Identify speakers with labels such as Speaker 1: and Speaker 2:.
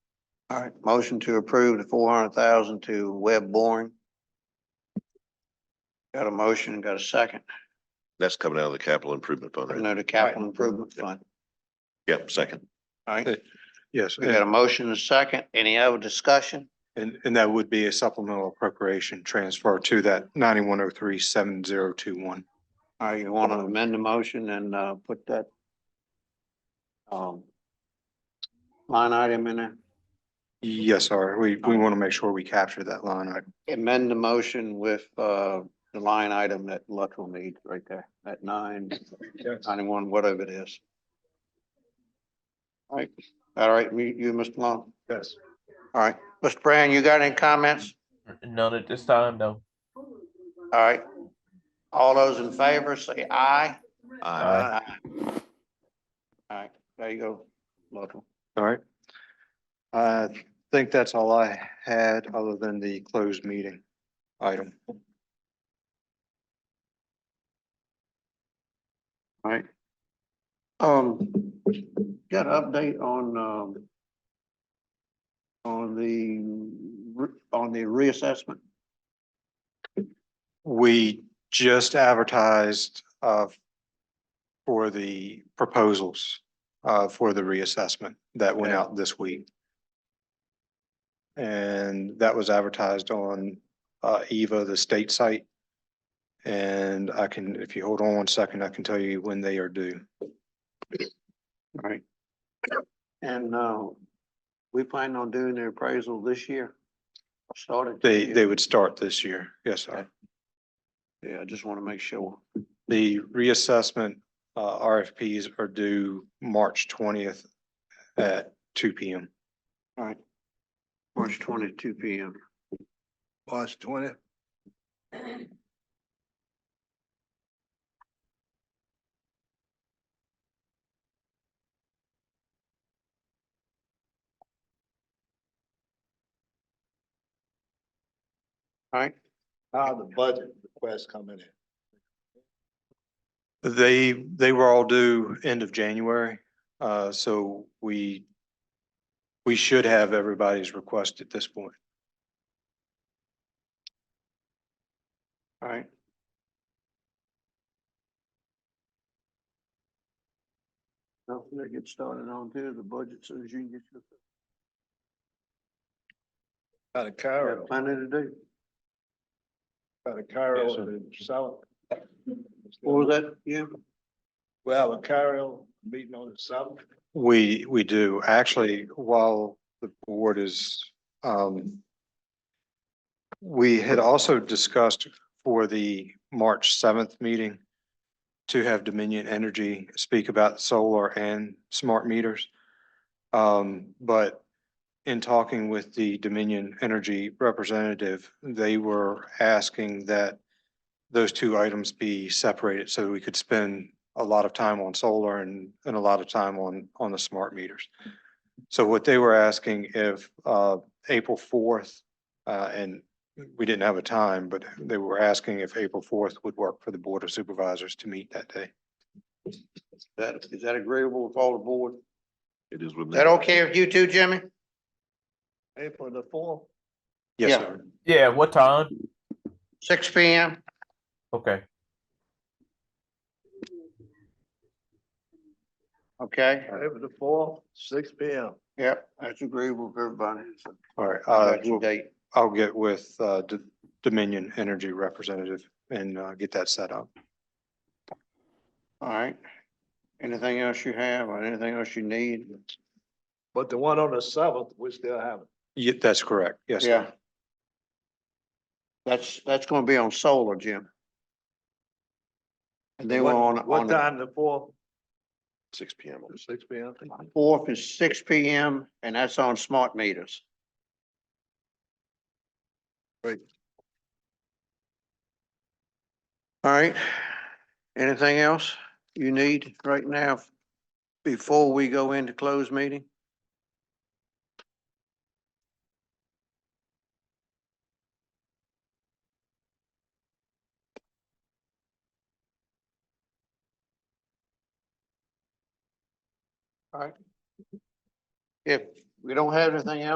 Speaker 1: All right, motion to approve the four hundred thousand to Web Boring. Got a motion, got a second,
Speaker 2: That's coming out of the capital improvement fund, right?
Speaker 1: no, the capital improvement fund,
Speaker 2: Yep, second.
Speaker 1: all right?
Speaker 3: Yes,
Speaker 1: We got a motion and a second, any other discussion?
Speaker 3: and, and that would be a supplemental appropriation transfer to that ninety-one oh three seven zero two one.
Speaker 1: All right, you want to amend the motion and, uh, put that um, line item in there?
Speaker 3: Yes, sir. We, we want to make sure we capture that line item.
Speaker 1: Amend the motion with, uh, the line item that Luttrell needs right there, at nine, ninety-one, whatever it is. All right, all right, you, you, Mr. Long,
Speaker 3: Yes.
Speaker 1: all right, Mr. Brown, you got any comments?
Speaker 4: None at this time, no.
Speaker 1: All right, all those in favor, say aye.
Speaker 2: Aye.
Speaker 1: Aye. All right, there you go, Luttrell.
Speaker 3: All right. I think that's all I had, other than the closed meeting item.
Speaker 1: Right. Um, got an update on, um, on the, re- on the reassessment.
Speaker 3: We just advertised, uh, for the proposals, uh, for the reassessment that went
Speaker 1: Okay.
Speaker 3: out this week. And that was advertised on, uh, Eva, the state site. And I can, if you hold on one second, I can tell you when they are due.
Speaker 1: Right. And, uh, we plan on doing the appraisal this year. Started.
Speaker 3: They, they would start this year. Yes, sir.
Speaker 1: Yeah, I just want to make sure.
Speaker 3: The reassessment, uh, RFPs are due March twentieth at two P M.
Speaker 1: All right. March twenty-two P M.
Speaker 5: March twenty.
Speaker 1: All right.
Speaker 5: How the budget requests coming in?
Speaker 3: They, they were all due end of January, uh, so we, we should have everybody's request at this point.
Speaker 1: All right. Don't forget to get started on to the budget soon as you get your.
Speaker 5: Out of
Speaker 1: Got
Speaker 5: Cairo,
Speaker 1: Plenty to do.
Speaker 5: out of Cairo
Speaker 3: Yes, sir.
Speaker 5: to South.
Speaker 1: What was that, yeah?
Speaker 5: Well, a Cairo meeting on the South.
Speaker 3: We, we do. Actually, while the board is, um, we had also discussed for the March seventh meeting to have Dominion Energy speak about solar and smart meters. Um, but in talking with the Dominion Energy representative, they were asking that those two items be separated so we could spend a lot of time on solar and, and a lot of time on, on the smart meters. So what they were asking if, uh, April fourth, uh, and we didn't have a time, but they were asking if April fourth would work for the Board of Supervisors to meet that day.
Speaker 1: That, is that agreeable with all the board?
Speaker 2: It is with
Speaker 1: Is
Speaker 2: me.
Speaker 1: that okay with you too, Jimmy?
Speaker 5: April the fourth.
Speaker 3: Yes,
Speaker 1: Yeah.
Speaker 3: sir.
Speaker 4: Yeah, what time?
Speaker 1: Six P M?
Speaker 4: Okay.
Speaker 1: Okay,
Speaker 5: April the fourth, six P M.
Speaker 1: yep, that's agreeable with everybody. So,
Speaker 3: All right.
Speaker 1: I
Speaker 3: Uh,
Speaker 1: got your date.
Speaker 3: I'll get with, uh, D- Dominion Energy Representative and, uh, get that set up.
Speaker 1: All right. Anything else you have or anything else you need?
Speaker 5: But the one on the seventh, we still haven't.
Speaker 3: Yeah, that's correct. Yes, sir.
Speaker 1: Yeah. That's, that's gonna be on solar, Jim. And they were
Speaker 5: What-
Speaker 1: on,
Speaker 5: What
Speaker 1: on the
Speaker 5: time the fourth?
Speaker 2: Six P M.
Speaker 5: Six P M.
Speaker 1: fourth is six P M and that's on smart meters.
Speaker 5: Great.
Speaker 1: All right. Anything else you need right now before we go into closed meeting? All right. If we don't have anything else.